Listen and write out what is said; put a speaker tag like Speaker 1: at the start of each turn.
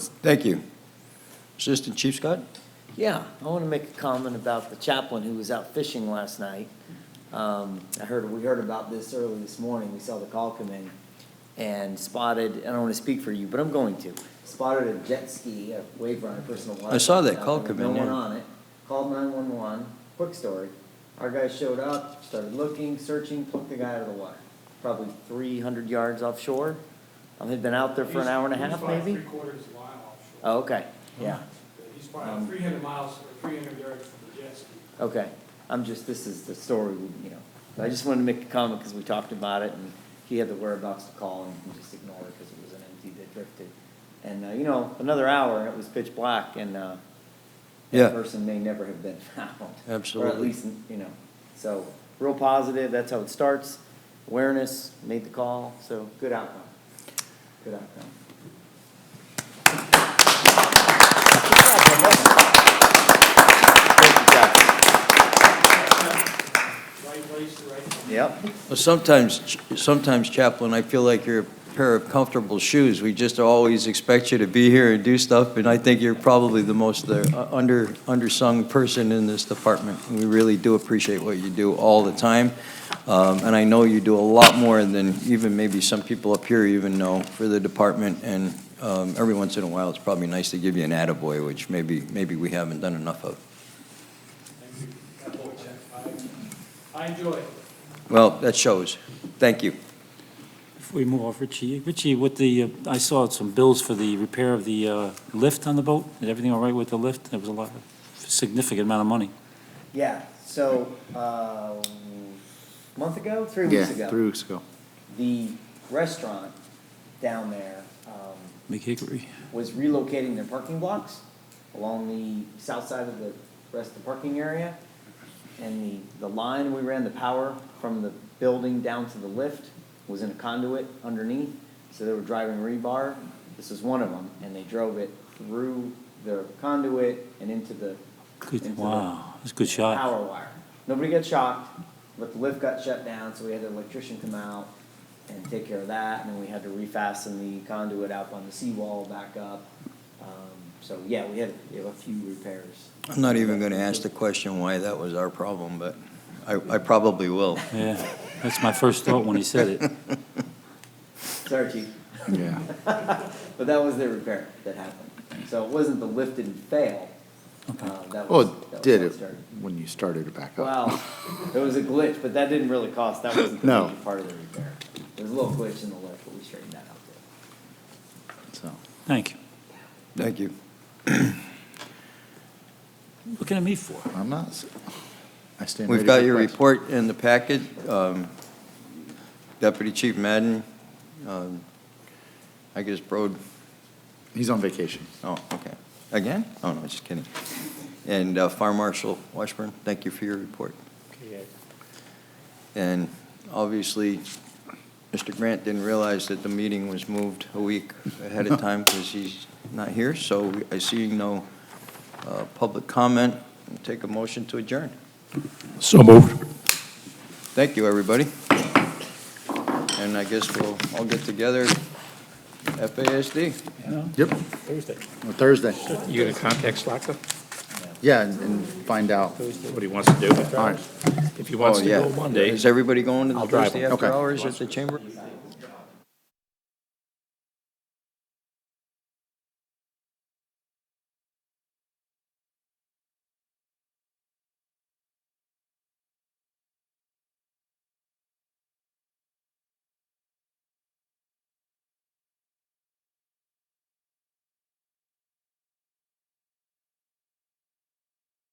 Speaker 1: Thank you. Assistant Chief Scott?
Speaker 2: Yeah, I want to make a comment about the chaplain who was out fishing last night. Um, I heard, we heard about this early this morning, we saw the call come in and spotted, I don't want to speak for you, but I'm going to, spotted a jet ski, a wave runner, personal water.
Speaker 1: I saw that
Speaker 2: out
Speaker 1: call
Speaker 2: there with
Speaker 1: come in,
Speaker 2: No one
Speaker 1: yeah.
Speaker 2: on it, called nine-one-one, quick story. Our guys showed up, started looking, searching, plucked the guy out of the water, probably three hundred yards offshore. Um, Had been out there for an hour and a
Speaker 3: He's-
Speaker 2: half,
Speaker 3: He's probably
Speaker 2: maybe?
Speaker 3: three quarters of a mile offshore.
Speaker 2: Oh, okay, Um, yeah.
Speaker 3: He's probably three hundred miles, or three hundred yards from the jet ski.
Speaker 2: Okay, I'm just, this is the story, you know, But I just wanted to make a comment because we talked about it and he had the whereabouts to call and we just ignored it because it was an empty that drifted. And, uh, you know, another hour and it was pitch black and, uh,
Speaker 1: Yeah.
Speaker 2: that person may never have been found. Or at
Speaker 1: Absolutely.
Speaker 2: least, you know, so, real positive, that's how it starts. Awareness, made the call, so good outcome. Good outcome. Thank you, Captain.
Speaker 3: Right place, the right time.
Speaker 2: Yep.
Speaker 1: Well, Sometimes, sometimes Chaplain, I feel like you're a pair of comfortable shoes. We just always expect you to be here and do stuff, and I think you're probably the most uh, under, undersung person in this department. We really do appreciate what you do all the time, Um, and I know you do a lot more than even maybe some people up here even know for the department, and um, every once in a while, it's probably nice to give you an attaboy, which maybe, maybe we haven't done enough of.
Speaker 3: Thank you. That boy checked. I I enjoy it.
Speaker 1: Well, that shows. Thank you.
Speaker 4: Before we move off, Richie, Richie, with the, uh, I saw some bills for the repair of the uh, lift on the boat. Is everything all right with the lift? There was a lot, significant amount of money.
Speaker 2: Yeah, so, uh, month ago, three
Speaker 5: Yeah,
Speaker 2: weeks ago.
Speaker 5: three weeks ago.
Speaker 2: The restaurant down there, um,
Speaker 4: Big Hickory.
Speaker 2: was relocating their parking blocks along the south side of the rest of the parking area. And the, the line we ran, the power from the building down to the lift was in a conduit underneath, so they were driving rebar. This was one of them, and they drove it through the conduit and into the
Speaker 4: Good,
Speaker 2: Into
Speaker 4: wow, that's a good shot.
Speaker 2: power wire. Nobody got shocked, but the lift got shut down, so we had the electrician come out and take care of that, and then we had to refasten the conduit up on the seawall back up. Um, So, yeah, we had, we have a few repairs.
Speaker 1: I'm not even going to ask the question why that was our problem, but I, I probably will.
Speaker 4: Yeah, that's my first thought when he said it.
Speaker 2: Sorry, chief,
Speaker 5: Yeah.
Speaker 2: but that was the repair that happened. So it wasn't the lift didn't fail.
Speaker 4: Okay.
Speaker 2: Uh, that
Speaker 5: Well,
Speaker 2: was- that was
Speaker 5: Oh, it did
Speaker 2: how
Speaker 5: it
Speaker 2: started.
Speaker 5: when you started it back up.
Speaker 2: Wow, there was a glitch, but that didn't really cost, that wasn't the
Speaker 5: No.
Speaker 2: major part of the repair. There was a little glitch in the lift, but we straightened that out there.
Speaker 5: So,
Speaker 4: Thank you.
Speaker 1: Thank you.
Speaker 4: Looking at me for?
Speaker 5: I'm not, s- I stand ready
Speaker 1: We've got
Speaker 5: for
Speaker 1: your
Speaker 5: questions.
Speaker 1: report in the packet. Um, Deputy Chief Madden, um, I guess Brode,
Speaker 5: He's on vacation.
Speaker 1: oh, okay. Again? Oh, no, just kidding. And uh, Fire Marshal Washburn, thank you for your report. And obviously, Mr. Grant didn't realize that the meeting was moved a week ahead of time because he's not here, so I see no uh, public comment. Take a motion to adjourn.
Speaker 6: So moved.
Speaker 1: Thank you, everybody. And I guess we'll all get together, FASD.
Speaker 5: Yep,
Speaker 6: Thursday.
Speaker 5: on Thursday.
Speaker 6: You gonna contact Slaka?
Speaker 5: Yeah, and, and find out.
Speaker 6: What he wants to do?
Speaker 5: All right.
Speaker 6: If he wants
Speaker 1: Oh,
Speaker 6: to
Speaker 1: yeah.
Speaker 6: go Monday.
Speaker 1: Is everybody going to the
Speaker 6: I'll drive
Speaker 1: Thursday
Speaker 6: them.
Speaker 1: after
Speaker 5: Okay.
Speaker 1: hours at the chamber?